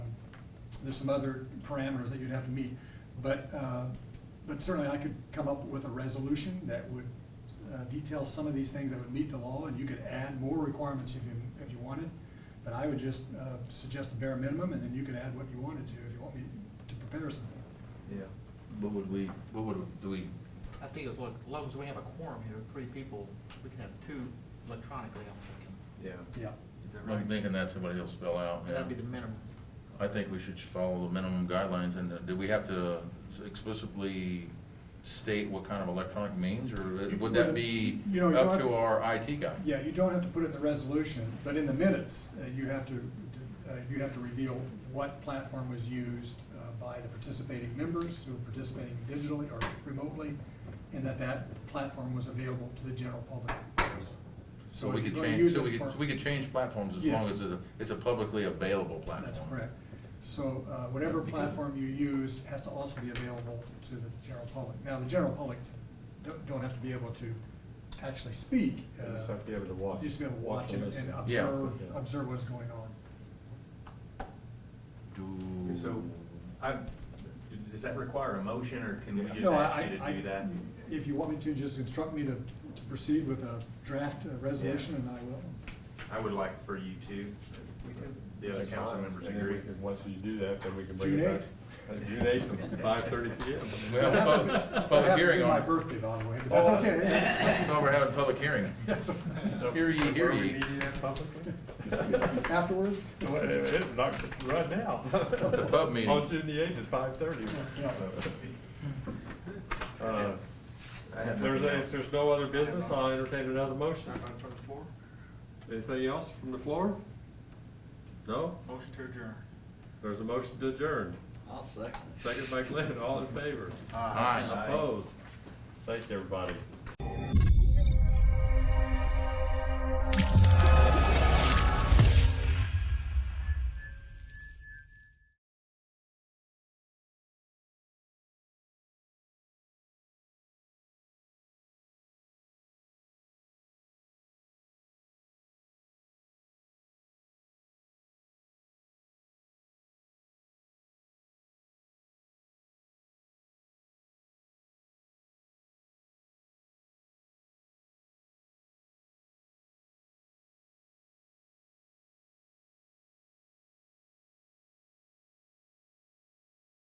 there's some other parameters that you'd have to meet. But, uh, but certainly I could come up with a resolution that would uh, detail some of these things that would meet the law, and you could add more requirements if you, if you wanted. But I would just uh, suggest a bare minimum, and then you could add what you wanted to, if you want me to prepare something. Yeah. What would we, what would, do we, I think as long, as long as we have a quorum here, three people, we can have two electronically, I'm thinking. yeah. Yeah. Is that I'm right? thinking that's what he'll spell out, yeah. That'd be the minimum. I think we should just follow the minimum guidelines, and uh, do we have to explicitly state what kind of electronic means, or would that be You know, you up don't- to our IT guy? Yeah, you don't have to put it in the resolution, but in the minutes, uh, you have to, uh, you have to reveal what platform was used uh, by the participating members who are participating digitally or remotely, and that that platform was available to the general public also. So we if could you're gonna change, use so it we could, for- we could change platforms as long Yes. as it's a, it's a publicly available platform. That's correct. So uh, whatever That'd be good. platform you use has to also be available to the general public. Now, the general public don't, don't have to be able to actually speak. You uh, just have to be able to watch- You just be able to watch watch and it listen. and Yeah. observe, Yeah. observe what's going on. Do. So, I, does that require a motion, or can we just No, ask I- you I- to do that? If you want me to, just instruct me to, to proceed with a draft uh, resolution and I will. I would like for you to, the other That's council fine. members And then we agree. can- Once you do that, then we can bring June it back. Uh, June eighth, five thirty P M. We have a public, public hearing I have on it. to do my birthday, by the way, but that's Oh. okay. That's- So we're having a public hearing. that's okay. Hear ye, hear Are we ye. meeting that publicly? Afterwards? Wait a minute, it's Not right now. The pub meeting. On June the eighth at five thirty. Yeah. I have If uh, there's, nothing a- else. if there's no other business, I'll entertain another motion. from the floor? Anything else from the floor? No? Motion to adjourn. There's a motion to adjourn. I'll second it. Second by Glenn, all in favor? Aye. Opposed? Thank you, everybody.